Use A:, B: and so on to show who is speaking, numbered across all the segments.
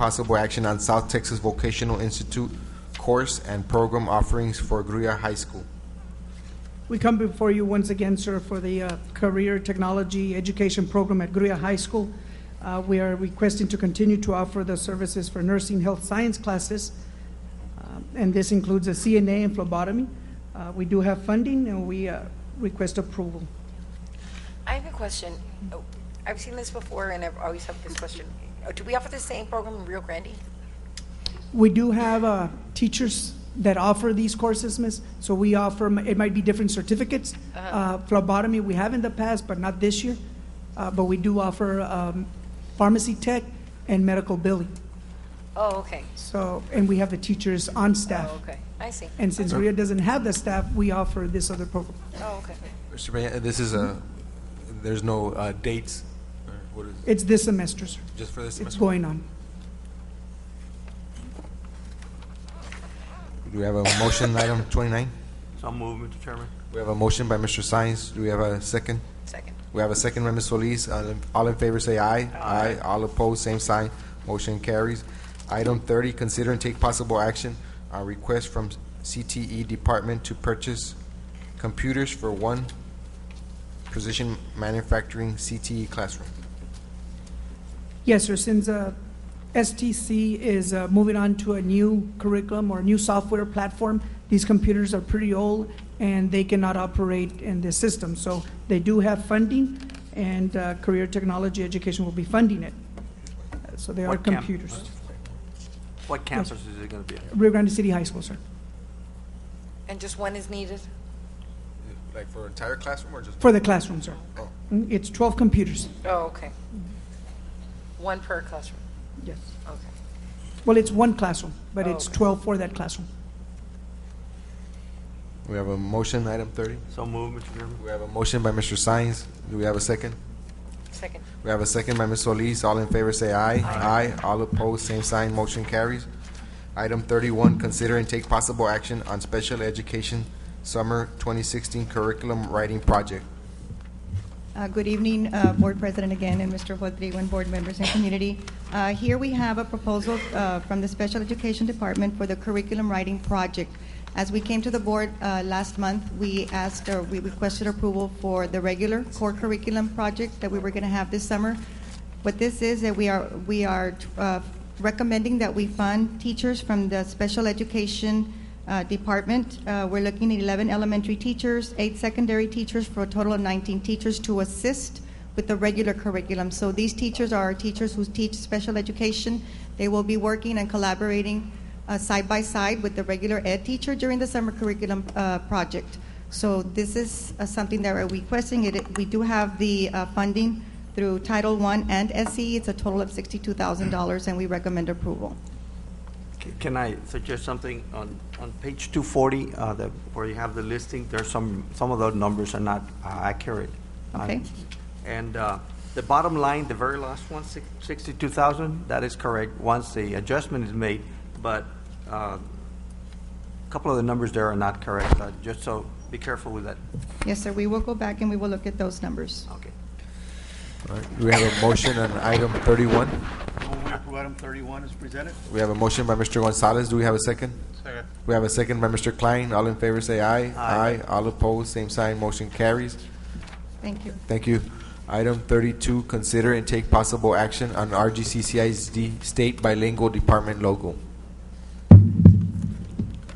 A: possible action on South Texas Vocational Institute course and program offerings for Gruya High School.
B: We come before you once again, sir, for the uh, Career Technology Education Program at Gruya High School. Uh, We are requesting to continue to offer the services for nursing health science classes, um, and this includes a CNA and phlebotomy. Uh, We do have funding, and we uh, request approval.
C: I have a question. Oh, I've seen this before, and I've always have this question. Uh, Do we offer the same program in Rio Grande?
B: We do have uh, teachers that offer these courses, miss, so we offer, it might be different certificates.
C: Uh-huh.
B: Uh, Phlebotomy, we have in the past, but not this year. Uh, But we do offer um, pharmacy tech and medical billing.
C: Oh, okay.
B: So, and we have the teachers on staff.
C: Oh, okay. I see.
B: Ah. And since Rio doesn't have the staff, we offer this other program.
C: Oh, okay.
A: Mr. Peña, uh, this is a, there's no uh, dates, or what is, it?
B: It's this semester, sir.
A: just for this
B: It's
A: semester?
B: going on.
A: Do we have a motion, item 29?
D: So move, Mr. Chairman.
A: We have a motion by Mr. Science. Do we have a second?
C: Second.
A: We have a second by Ms. Solis. All in- All in favor, say aye. Aye. All opposed, same sign. Motion carries. Item 30, consider and take possible action on request from CTE Department to purchase computers for one precision manufacturing CTE classroom.
B: Yes, sir, since uh, STC is uh, moving on to a new curriculum or new software platform, these computers are pretty old and they cannot operate in this system. So they do have funding and uh, Career Technology Education will be funding it. Uh, So they are
D: What camp-
B: computers.
D: What campus is it gonna be at?
B: Rio Grande City High School, sir,
C: And just one is needed?
A: Like for entire classroom or just?
B: for the classroom, sir. Mm, It's 12 computers.
C: Oh, okay. One per classroom.
B: Yes.
C: Okay.
B: Well, it's one classroom, but
C: Oh,
B: it's
C: okay.
B: 12 for that classroom.
A: We have a motion, item 30.
D: So move, Mr. Chairman.
A: We have a motion by Mr. Science. Do we have a second?
C: Second.
A: We have a second by Ms. Solis. All in favor, say aye. Aye. All opposed, same sign. Motion carries. Item thirty-one, consider and take possible action on special education summer twenty sixteen curriculum writing project.
E: Uh, Good evening, uh, Board President again, and Mr. Rodrigo, and board members and community. Uh, Here we have a proposal uh, from the Special Education Department for the Curriculum Writing Project. As we came to the board uh, last month, we asked, or we requested approval for the regular core curriculum project that we were going to have this summer. What this is, that we are, we are uh, recommending that we fund teachers from the special education uh, department. Uh, We're looking at 11 elementary teachers, eight secondary teachers, for a total of 19 teachers to assist with the regular curriculum. So these teachers are our teachers who teach special education. They will be working and collaborating uh, side by side with the regular ed teacher during the summer curriculum uh, project. So this is uh, something that we're requesting. It- It, we do have the uh, funding through Title I and SE. It's a total of $62,000, and we recommend approval.
D: C- Can I suggest something on, on page two forty, uh, the, where you have the listing, there's some, some of those numbers are not uh, accurate. Uh,
E: Okay.
D: And, uh, the bottom line, the very last one, six- sixty-two thousand, that is correct, once the adjustment is made, but, uh, a couple of the numbers there are not correct, uh, just so, be careful with that.
E: Yes, sir, we will go back and we will look at those numbers.
D: Okay.
A: All right, we have a motion on item thirty-one.
F: Move we approve item 31 is presented.
A: We have a motion by Mr. Gonzalez. Do we have a second?
F: Second.
A: We have a second by Mr. Klein. All in favor, say aye.
D: Aye.
A: All opposed, same sign. Motion carries.
E: Thank you.
A: Thank you. Item thirty-two, consider and take possible action on RGCCISD state bilingual department logo.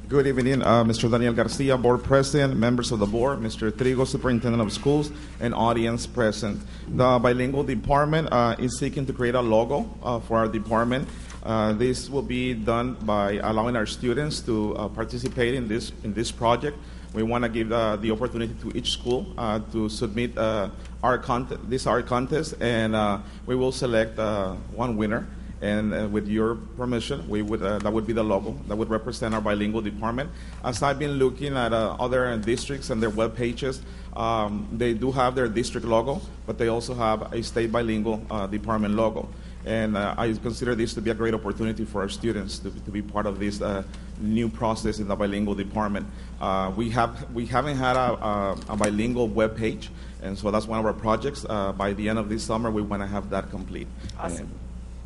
G: Good evening, uh, Mr. Daniel Garcia, Board President, members of the board, Mr. Trigo, Superintendent of Schools, and audience present. The bilingual department uh, is seeking to create a logo uh, for our department. Uh, This will be done by allowing our students to uh, participate in this, in this project. We want to give uh, the opportunity to each school uh, to submit uh, art contest, this art contest, and uh, we will select uh, one winner. And uh, with your permission, we would, uh, that would be the logo that would represent our bilingual department. As I've been looking at uh, other districts and their web pages, um, they do have their district logo, but they also have a state bilingual uh, department logo. And uh, I consider this to be a great opportunity for our students to, to be part of this uh, new process in the bilingual department. Uh, we, have, we haven't had a, a, a bilingual web page, and so that's one of our projects. Uh, by the end of this summer, we want to have that complete.
C: Awesome.
G: And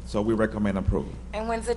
H: So we recommend approval.
G: And when's the